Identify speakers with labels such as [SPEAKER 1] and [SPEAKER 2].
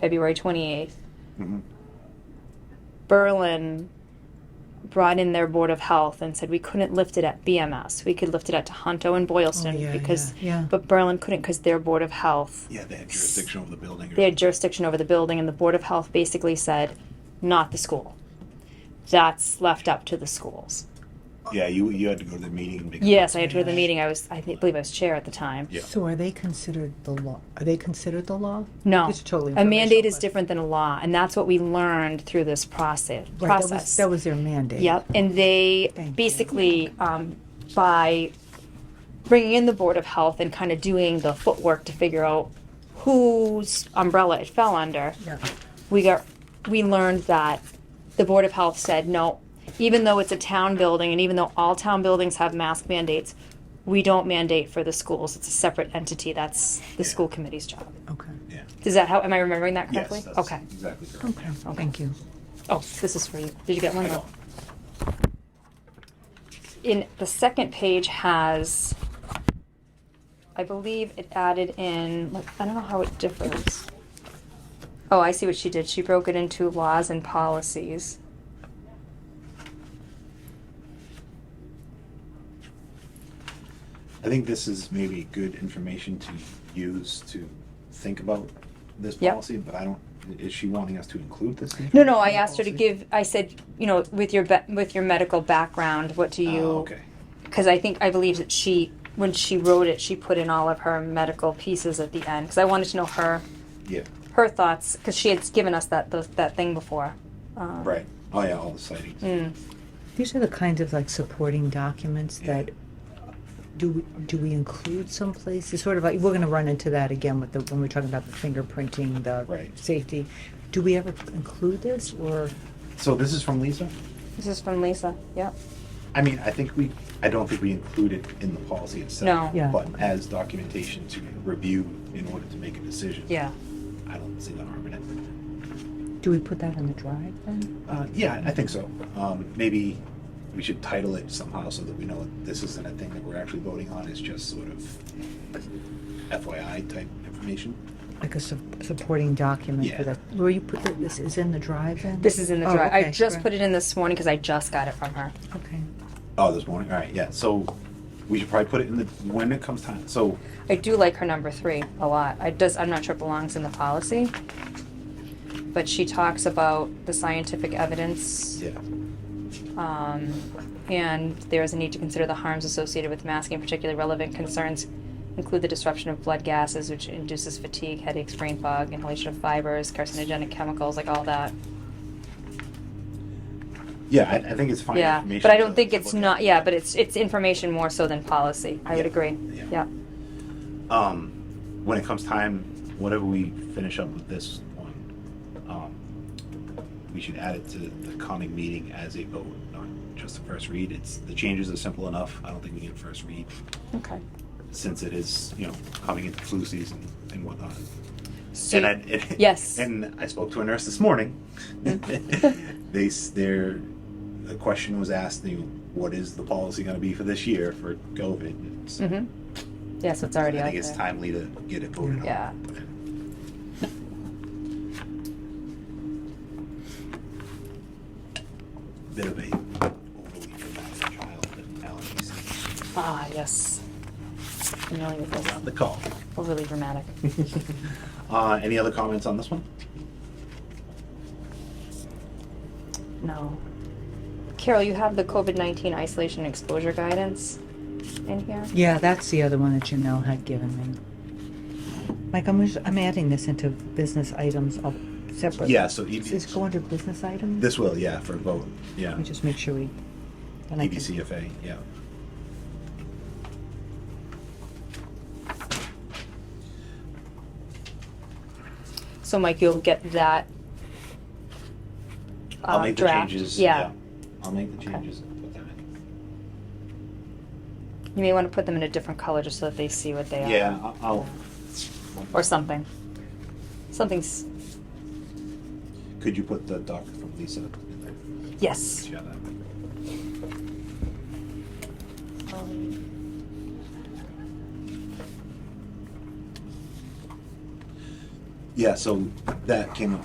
[SPEAKER 1] February 28th,
[SPEAKER 2] Mhm.
[SPEAKER 1] Berlin brought in their board of health and said we couldn't lift it at BMS. We could lift it at Tohonto and Boylston
[SPEAKER 3] Oh, yeah,
[SPEAKER 1] because,
[SPEAKER 3] yeah, yeah.
[SPEAKER 1] but Berlin couldn't because their board of health,
[SPEAKER 2] Yeah, they had jurisdiction over the building. or-
[SPEAKER 1] they had jurisdiction over the building, and the board of health basically said, not the school. That's left up to the schools.
[SPEAKER 2] yeah, you you had to go to the meeting. And make a-
[SPEAKER 1] Yes, I had to go to the meeting. I was, I think, believe I was chair at the time.
[SPEAKER 2] Yeah.
[SPEAKER 3] So are they considered the law? Are they considered the law?
[SPEAKER 1] No,
[SPEAKER 3] It's totally
[SPEAKER 1] a mandate
[SPEAKER 3] informational,
[SPEAKER 1] is
[SPEAKER 3] but-
[SPEAKER 1] different than a law, and that's what we learned through this process.
[SPEAKER 3] Right,
[SPEAKER 1] process.
[SPEAKER 3] That was, that was their mandate.
[SPEAKER 1] Yep, and they
[SPEAKER 3] Thank you.
[SPEAKER 1] basically, um, by bringing in the Board of Health and kind of doing the footwork to figure out whose umbrella it fell under,
[SPEAKER 3] Yeah.
[SPEAKER 1] we got, we learned that the Board of Health said, no, even though it's a town building and even though all town buildings have mask mandates, we don't mandate for the schools. It's a separate entity. That's the school committee's job.
[SPEAKER 3] Okay.
[SPEAKER 2] Yeah.
[SPEAKER 1] Is that how, am I remembering that
[SPEAKER 2] Yes.
[SPEAKER 1] correctly?
[SPEAKER 2] that's
[SPEAKER 1] Okay.
[SPEAKER 2] Exactly. Correct.
[SPEAKER 3] Okay. Thank you.
[SPEAKER 1] Oh, this is for you. Did you get one?
[SPEAKER 2] I know.
[SPEAKER 1] in the second page has I believe it added in like I don't know how it differs. Oh, I see what she did. She broke it into laws and policies.
[SPEAKER 2] I think this is maybe good information to use to think about this
[SPEAKER 1] Yep.
[SPEAKER 2] policy, but I don't, is she wanting us to include this?
[SPEAKER 1] No, no, I asked her to
[SPEAKER 2] Policy?
[SPEAKER 1] give I said, you know, with your be- with your medical background, what do
[SPEAKER 2] Oh,
[SPEAKER 1] you
[SPEAKER 2] okay.
[SPEAKER 1] cuz I think I believe that she when she wrote it, she put in all of her medical pieces at the end cuz I wanted to know her
[SPEAKER 2] Yeah,
[SPEAKER 1] her thoughts cuz she had given us that those, that thing before. Um,
[SPEAKER 2] right. Oh, yeah, all the sightings.
[SPEAKER 1] mm.
[SPEAKER 3] These are the kinds of like supporting documents that do we, do we include someplace? It's sort of like we're going to run into that again with the when we're talking about the fingerprinting, the
[SPEAKER 2] Right.
[SPEAKER 3] safety. Do we ever include this or
[SPEAKER 2] So this is from Lisa?
[SPEAKER 1] This is from Lisa. Yep.
[SPEAKER 2] I mean, I think we, I don't think we include it in the policy itself.
[SPEAKER 1] No.
[SPEAKER 3] Yeah.
[SPEAKER 2] But as documentation to review in order to make a decision.
[SPEAKER 1] Yeah.
[SPEAKER 2] I don't see the harm in it.
[SPEAKER 3] do we put that on the drive then?
[SPEAKER 2] Uh, yeah, I think so. Um, maybe we should title it somehow so that we know this isn't a thing that we're actually voting on, it's just sort of FYI type information.
[SPEAKER 3] Like a su- supporting document for
[SPEAKER 2] Yeah.
[SPEAKER 3] that? Where you put that, this is in the drive then?
[SPEAKER 1] This is in the
[SPEAKER 3] Oh,
[SPEAKER 1] drive. I
[SPEAKER 3] okay,
[SPEAKER 1] just
[SPEAKER 3] right.
[SPEAKER 1] put it in this morning because I just got it from her.
[SPEAKER 3] Okay.
[SPEAKER 2] Oh, this morning. All right. Yeah. So we should probably put it in the when it comes time. So
[SPEAKER 1] I do like her number three a lot. I does. I'm not sure it belongs in the policy, but she talks about the scientific evidence,
[SPEAKER 2] yeah,
[SPEAKER 1] um, and there is a need to consider the harms associated with masking. Particularly relevant concerns include the disruption of blood gases, which induces fatigue, headaches, brain fog, inhalation of fibers, carcinogenic chemicals, like all that.
[SPEAKER 2] yeah. I, I think it's fine.
[SPEAKER 1] yeah,
[SPEAKER 2] information
[SPEAKER 1] but I
[SPEAKER 2] to-
[SPEAKER 1] don't think
[SPEAKER 2] to
[SPEAKER 1] it's
[SPEAKER 2] look
[SPEAKER 1] not.
[SPEAKER 2] at.
[SPEAKER 1] Yeah, but it's it's information more so than policy. I would
[SPEAKER 2] Yeah.
[SPEAKER 1] agree. yeah.
[SPEAKER 2] Yeah. Um, when it comes time, whatever we finish up with this one, um, we should add it to the coming meeting as a vote, not just a first read. It's the changes are simple enough. I don't think we need a first read
[SPEAKER 1] Okay.
[SPEAKER 2] since it is you know coming into flu season and whatnot.
[SPEAKER 1] So
[SPEAKER 2] And I,
[SPEAKER 1] you-
[SPEAKER 2] and-
[SPEAKER 1] Yes.
[SPEAKER 2] And I spoke to a nurse this morning.
[SPEAKER 1] Mm.
[SPEAKER 2] they s- their a question was asked, you know, what is the policy going to be for this year for COVID? And so
[SPEAKER 1] Mhm. Yes, it's already
[SPEAKER 2] I
[SPEAKER 1] out
[SPEAKER 2] think it's
[SPEAKER 1] there.
[SPEAKER 2] timely to get it voted
[SPEAKER 1] Yeah.
[SPEAKER 2] on. Bit of a overly dramatic child and allergies.
[SPEAKER 1] Ah, yes. Familiar with this.
[SPEAKER 2] Not the call.
[SPEAKER 1] Overly dramatic.
[SPEAKER 2] Uh, any other comments on this one?
[SPEAKER 1] No. Carol, you have the COVID nineteen isolation exposure guidance in here.
[SPEAKER 3] Yeah, that's the other one that Janelle had given me. Mike, I'm, just- I'm adding this into business items of separate.
[SPEAKER 2] Yeah. So EB,
[SPEAKER 3] Does this go under business items?
[SPEAKER 2] this will, yeah, for a vote. Yeah.
[SPEAKER 3] Let me just make sure we. then I can-
[SPEAKER 2] EBCFA,
[SPEAKER 1] Uh,
[SPEAKER 2] yeah.
[SPEAKER 1] So, Mike, you'll get that.
[SPEAKER 2] I'll
[SPEAKER 1] uh,
[SPEAKER 2] make the
[SPEAKER 1] draft.
[SPEAKER 2] changes.
[SPEAKER 1] Yeah.
[SPEAKER 2] I'll make the changes and put them in.
[SPEAKER 1] you may want to put them in a different color just so that they see what they are.
[SPEAKER 2] Yeah, I- I'll,
[SPEAKER 1] Or something. Something's
[SPEAKER 2] could you put the doc from Lisa in there?
[SPEAKER 1] yes.
[SPEAKER 2] Yeah, that would-
[SPEAKER 1] Um,
[SPEAKER 2] yeah, so that came up